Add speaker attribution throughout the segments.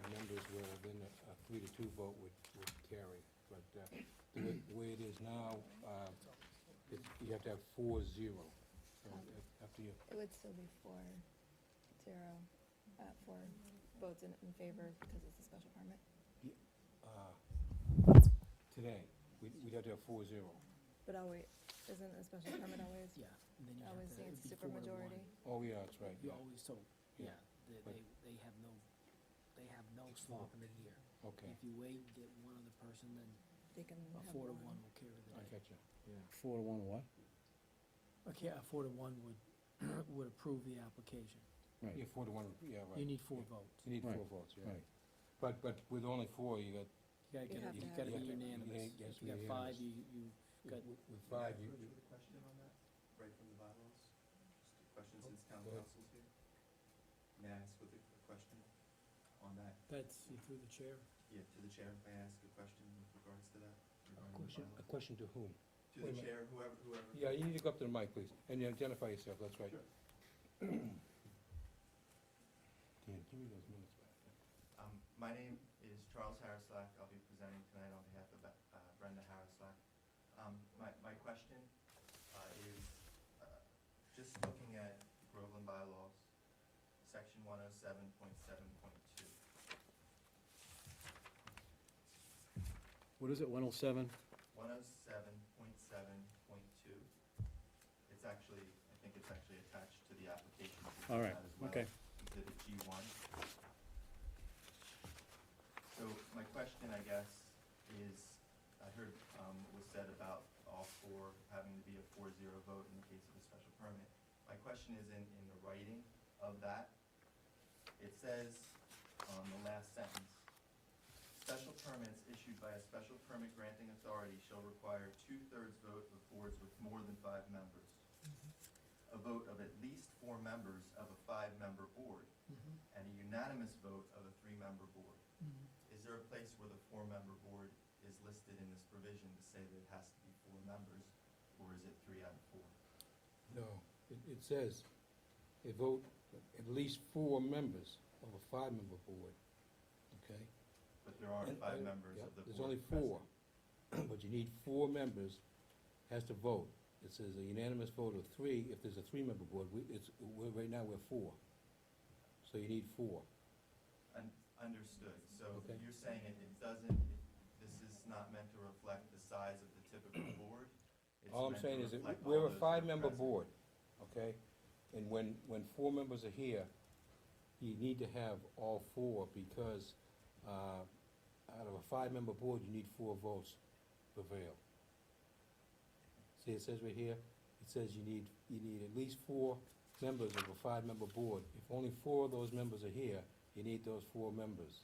Speaker 1: well, then a a three to two vote would, would carry. But uh, the way- the way it is now, uh, it's, you have to have four zero. So it- Up to you.
Speaker 2: It would still be four, zero, uh, four votes in, in favor because it's a special permit.
Speaker 1: Uh, Today, we- we'd have to have four zero.
Speaker 2: But always, isn't a special permit always,
Speaker 3: Yeah, and then you have
Speaker 2: always
Speaker 3: to,
Speaker 2: needs
Speaker 3: it'd be four to one.
Speaker 2: supermajority?
Speaker 1: Oh, yeah, that's right,
Speaker 3: You
Speaker 1: yeah,
Speaker 3: always, so,
Speaker 1: Yeah.
Speaker 3: yeah, they,
Speaker 1: But-
Speaker 3: they, they have no, they have no
Speaker 1: It's four.
Speaker 3: swap in the year.
Speaker 1: okay.
Speaker 3: If you wait and get one other person, then
Speaker 2: They can
Speaker 3: a
Speaker 2: have
Speaker 3: four to
Speaker 2: one.
Speaker 3: one will carry the
Speaker 1: I
Speaker 3: day.
Speaker 1: catch you, yeah.
Speaker 4: Four to one what?
Speaker 3: Okay, a four to one would, would approve the application.
Speaker 4: Right.
Speaker 1: Yeah, four to one, yeah, right.
Speaker 3: You need four
Speaker 1: yeah.
Speaker 3: votes.
Speaker 1: You need four
Speaker 4: Right,
Speaker 1: votes, yeah.
Speaker 4: Right.
Speaker 1: But, but with only four, you got,
Speaker 3: You gotta
Speaker 2: You have to
Speaker 3: get, you
Speaker 2: have
Speaker 3: gotta
Speaker 2: it.
Speaker 3: be
Speaker 2: Yeah,
Speaker 3: unanimous.
Speaker 1: yeah, yeah,
Speaker 3: If you got five,
Speaker 1: unanimous.
Speaker 3: you, you got,
Speaker 1: with with five, you, you-
Speaker 5: With a question on that, right from the bylaws? Just a question since town
Speaker 1: Oh, Go ahead.
Speaker 5: council's here? May I ask with a a question on that,
Speaker 3: that's through the chair.
Speaker 5: yeah, to the chair, may I ask a question with regards to that? regarding the
Speaker 1: question, a
Speaker 5: bylaws?
Speaker 1: question to whom?
Speaker 5: To
Speaker 1: wait a
Speaker 5: the
Speaker 1: minute.
Speaker 5: chair, whoever, whoever.
Speaker 1: Yeah, you need to go up to the mic, please, and you identify yourself, that's right.
Speaker 5: Sure.
Speaker 1: Dan, give me those minutes back.
Speaker 5: Um, my name is Charles Harrislack. I'll be presenting tonight on behalf of uh, Brenda Harrislack. Um, my, my question, uh, is, uh, just looking at Groveland bylaws, section one oh seven point seven point two.
Speaker 4: What is it, one oh seven?
Speaker 5: One oh seven point seven point two. It's actually, I think it's actually attached to the application. so
Speaker 4: All
Speaker 5: it's
Speaker 4: right,
Speaker 5: not as well.
Speaker 4: okay.
Speaker 5: exhibit G one. So my question, I guess, is, I heard, um, what was said about all four having to be a four zero vote in the case of a special permit. My question is in, in the writing of that, it says on the last sentence, special permits issued by a special permit granting authority shall require two-thirds vote of boards with more than five members. A vote of at least four members of a five-member board
Speaker 2: Mm-hmm.
Speaker 5: and a unanimous vote of a three-member board. Is there a place where the four-member board is listed in this provision to say that it has to be four members, or is it three out of four?
Speaker 1: No, it, it says, a vote, at least four members of a five-member board, okay?
Speaker 5: But there are
Speaker 1: And-
Speaker 5: five
Speaker 1: and-
Speaker 5: members
Speaker 1: yeah,
Speaker 5: of the board.
Speaker 1: There's only
Speaker 5: present.
Speaker 1: four, but you need four members, has to vote. It says a unanimous vote of three, if there's a three-member board, we, it's, we're, right now, we're four. So you need four.
Speaker 5: Un- Understood, so
Speaker 1: Okay.
Speaker 5: you're saying it, it doesn't, it- this is not meant to reflect the size of the typical board? It's
Speaker 1: All I'm
Speaker 5: meant to
Speaker 1: saying is that
Speaker 5: reflect all
Speaker 1: we're a
Speaker 5: those that are
Speaker 1: five-member
Speaker 5: present.
Speaker 1: board, okay? And when, when four members are here, you need to have all four because, uh, out of a five-member board, you need four votes to prevail. See, it says right here, it says you need, you need at least four members of a five-member board. If only four of those members are here, you need those four members.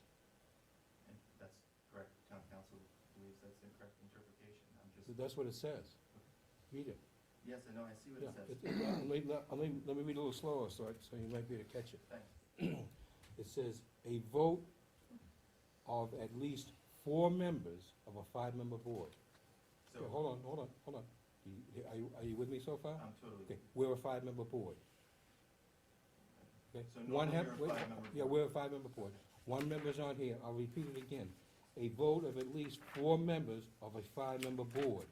Speaker 5: And That's correct, town council believes that's the correct interpretation, I'm just,
Speaker 1: So That's what it says. Read it.
Speaker 5: yes, I know, I see what
Speaker 1: Yeah,
Speaker 5: it says.
Speaker 1: it- it- uh, let, let- let me- let me read a little slower, so, I- so you might be able to catch it.
Speaker 5: Thanks.
Speaker 1: It says, "A vote of at least four members of a five-member board."
Speaker 5: So,
Speaker 1: Yeah, Hold on, hold on, hold on. You- you- Are you, are you with me so far?
Speaker 5: I'm totally.
Speaker 1: Okay, we're a five-member board. Okay,
Speaker 5: So
Speaker 1: one
Speaker 5: normally
Speaker 1: hap-
Speaker 5: you're a
Speaker 1: wait,
Speaker 5: five-member
Speaker 1: Yeah,
Speaker 5: board.
Speaker 1: we're a five-member board. One member's on here, I'll repeat it again. A vote of at least four members of a five-member board.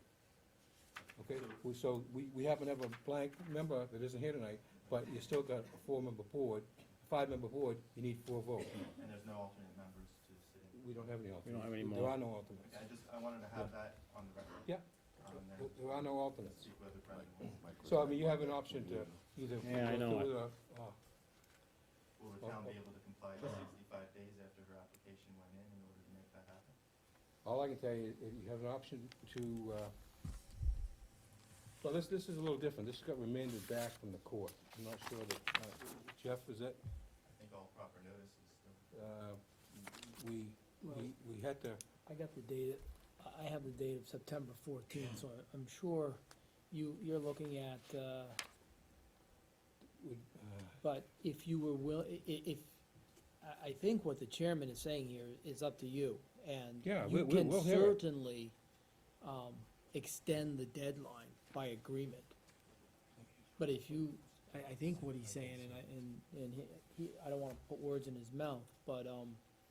Speaker 1: Okay, we- so we, we happen to have a blank member that isn't here tonight, but you still got a four-member board, five-member board, you need four votes.
Speaker 5: And there's no alternate members to sit in.
Speaker 1: We don't have any alternates.
Speaker 4: We don't have any
Speaker 1: There
Speaker 4: more.
Speaker 1: are no alternates.
Speaker 5: Okay, I just, I wanted to have that on the record.
Speaker 1: Yeah.
Speaker 5: Um, and
Speaker 1: There-
Speaker 5: then
Speaker 1: There are no alternates.
Speaker 5: speak whether Brendan was,
Speaker 1: So, I mean, you have an option to either.
Speaker 4: Yeah, I know
Speaker 1: go
Speaker 4: it.
Speaker 1: through the, uh,
Speaker 5: will the town be able to comply with sixty-five days after her application went in in order to make that happen?
Speaker 1: All I can tell you, is you have an option to, uh, well, this, this is a little different. This got remanded back from the court. I'm not sure that, uh, Jeff, is that,
Speaker 5: I think all proper notice is still.
Speaker 1: uh, we, we, we had to,
Speaker 3: I got the date, I- I have the date of September fourteenth, so I- I'm sure you, you're looking at, uh,
Speaker 1: we, uh,
Speaker 3: but if you were will, i- i- if, I, I think what the chairman is saying here is up to you, and
Speaker 1: Yeah, we- we- we'll
Speaker 3: You can
Speaker 1: hear it.
Speaker 3: certainly, um, extend the deadline by agreement. But if you, I, I think what he's saying, and I, and, and he- he, I don't wanna put words in his mouth, but, um,